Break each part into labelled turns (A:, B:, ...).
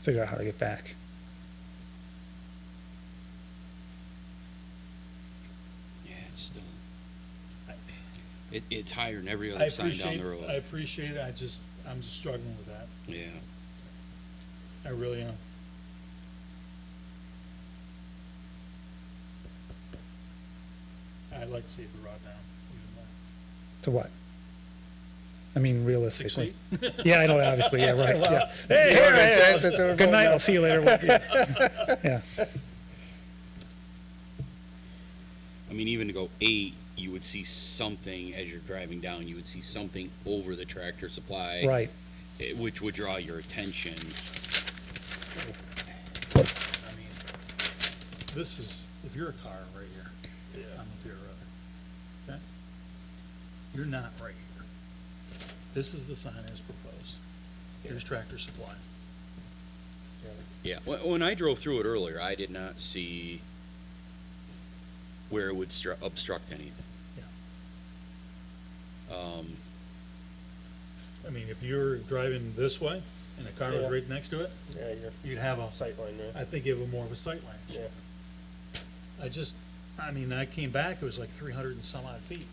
A: figure out how to get back.
B: Yeah, it's still, it, it's higher than every
C: I
B: other sign down
C: appreciate,
B: the
C: I
B: road.
C: appreciate it, I just, I'm just struggling with that,
B: Yeah,
C: I really am. I'd like to see it be brought down even more.
A: To what? I mean,
C: Six
A: realistically.
C: feet?
A: Yeah, I know, obviously, yeah, right, yeah. Hey, hey,
C: Yeah,
A: hey,
C: it's- it's-
A: Good night, I'll see you later. Yeah,
B: I mean, even to go eight, you would see something as you're driving down, you would see something over the tractor supply.
A: right.
B: eh, Which would draw your attention.
C: I mean, this is, if you're a car right here, I'm a beer runner, okay? You're not right here. This is the sign as proposed. Here's Tractor Supply.
B: Yeah, when, when I drove through it earlier, I did not see where it would stru- obstruct anything. Um,
C: I mean, if you're driving this way and a car was
D: Yeah.
C: right next to it,
D: Yeah, your
C: you'd have a,
D: sightline, right?
C: I think you have a more of a sight line.
D: Yeah.
C: I just, I mean, I came back, it was like three hundred and some odd feet.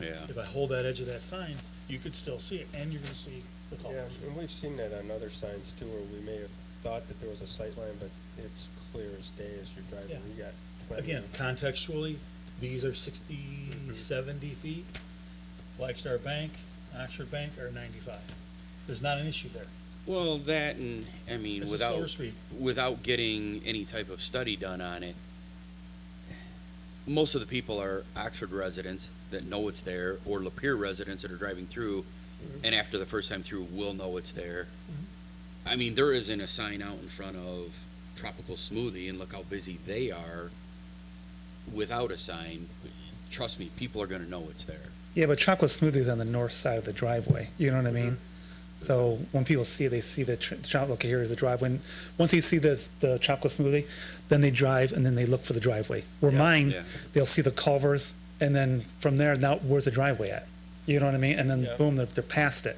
B: yeah,
C: If I hold that edge of that sign, you could still see it, and you're gonna see the
D: Yeah,
C: culvert.
D: and we've seen that on other signs too, where we may have thought that there was a sight line, but it's clear as day as you're driving,
C: Yeah.
D: you got. plenty
C: Again,
D: of-
C: contextually, these are 60,
D: Mm-hmm.
C: 70 feet. Black Star Bank, Oxford Bank are ninety-five. There's not an issue there.
B: well, that and, I mean,
C: This is
B: without.
C: slower speed.
B: without getting any type of study done on it, most of the people are Oxford residents that know it's there, or Lapeer residents that are driving through,
C: Mm-hmm.
B: and after the first time through, will know it's there.
C: Mm-hmm.
B: I mean, there isn't a sign out in front of Tropical Smoothie, and look how busy they are without a sign. Trust me, people are gonna know it's there.
A: Yeah, but chocolate smoothie is on the north side of the driveway. You know what I mean? So when people see, it, they see the tr- chocolate. Okay, here is the driveway. And once they see this, the chocolate smoothie, then they drive and then they look for the driveway. Where mine,
B: yeah.
A: they'll see the culvers, and then from there, now where's the driveway at? You know what I mean? And then
D: Yeah.
A: boom, they're, they're past it.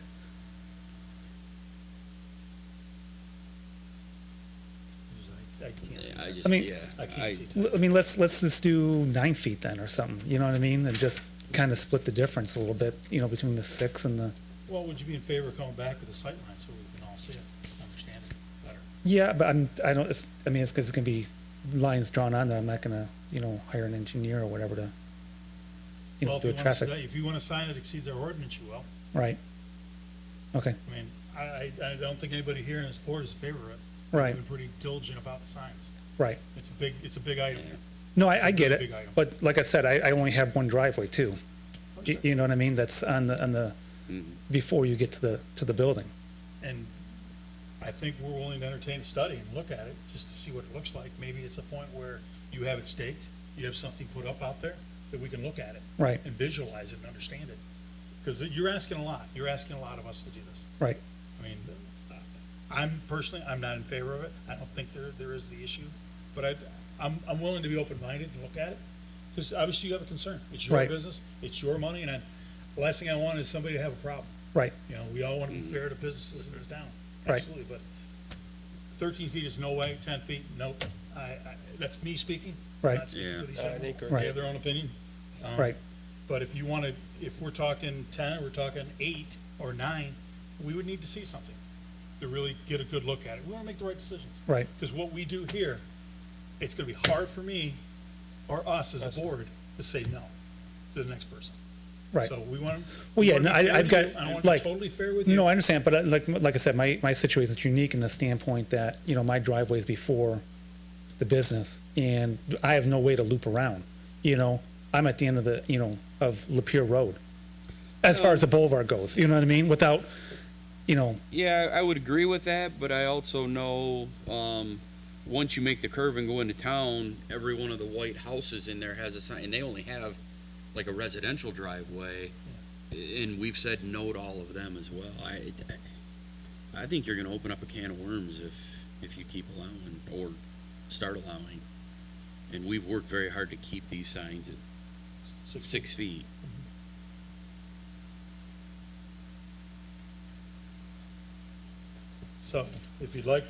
C: I can't see.
B: I
C: that.
B: just,
A: I mean,
B: yeah.
C: I can't see.
A: L- I mean, let's let's just do nine feet then, or something. You know what I mean? And just kind of split the difference a little bit. You know, between the six and the
C: Well, would you be in favor of coming back with a sight line so we can all see it, understand it better?
A: Yeah, but I'm, I don't, it's, I mean, it's, it's gonna be lines drawn on there, I'm not gonna, you know, hire an engineer or whatever to, you
C: Well,
A: know,
C: if
A: do a
C: you want to,
A: traffic,
C: if you want to sign that exceeds our ordinance, you will.
A: right? Okay,
C: I mean, I, I, I don't think anybody here in this board is in favor of it.
A: right,
C: We've been pretty diligent about the signs.
A: right.
C: It's a big, it's a big item.
A: No, I, I get
C: Big
A: it,
C: item.
A: but like I said, I, I only have one driveway too. You, you know what I mean? That's on the, on the, before you get to the, to the building.
C: And I think we're willing to entertain a study and look at it, just to see what it looks like. Maybe it's a point where you have it staked, you have something put up out there, that we can look at it.
A: Right.
C: And visualize it and understand it. Because you're asking a lot, you're asking a lot of us to do this.
A: Right.
C: I mean, I'm personally, I'm not in favor of it. I don't think there, there is the issue. But I, I'm, I'm willing to be open-minded and look at it, because obviously you have a concern. It's your
A: Right.
C: business, it's your money, and I, the last thing I want is somebody to have a problem.
A: Right.
C: You know, we all want to be fair to businesses in this town.
A: Right.
C: Absolutely, but thirteen feet is no way, ten feet, nope. I, I, that's me speaking. I'm
A: Right.
C: not speaking for these
D: Uh, I
C: gentlemen.
D: think, we're-
C: They
A: Right.
C: have their own opinion. Um,
A: Right.
C: But if you want to, if we're talking ten, we're talking eight or nine, we would need to see something to really get a good look at it. We want to make the right decisions.
A: Right.
C: Because what we do here, it's going to be hard for me or us as a board to say no to the next person.
A: Right.
C: So we want.
A: Well, yeah, no, I- I've got,
C: I want to be
A: like-
C: totally fair with you.
A: No, I understand, but uh, like, like I said, my, my situation is unique in the standpoint that, you know, my driveway is before the business and I have no way to loop around, you know? I'm at the end of the, you know, of Lapeer Road, as
C: Oh.
A: far as the boulevard goes, you know what I mean? Without, you know,
B: Yeah, I would agree with that, but I also know, um, once you make the curve and go into town, every one of the white houses in there has a sign, and they only have like a residential driveway. And we've said no to all of them as well. I, I think you're gonna open up a can of worms if, if you keep allowing or start allowing. And we've worked very hard to keep these signs at six feet.
C: So if you'd like,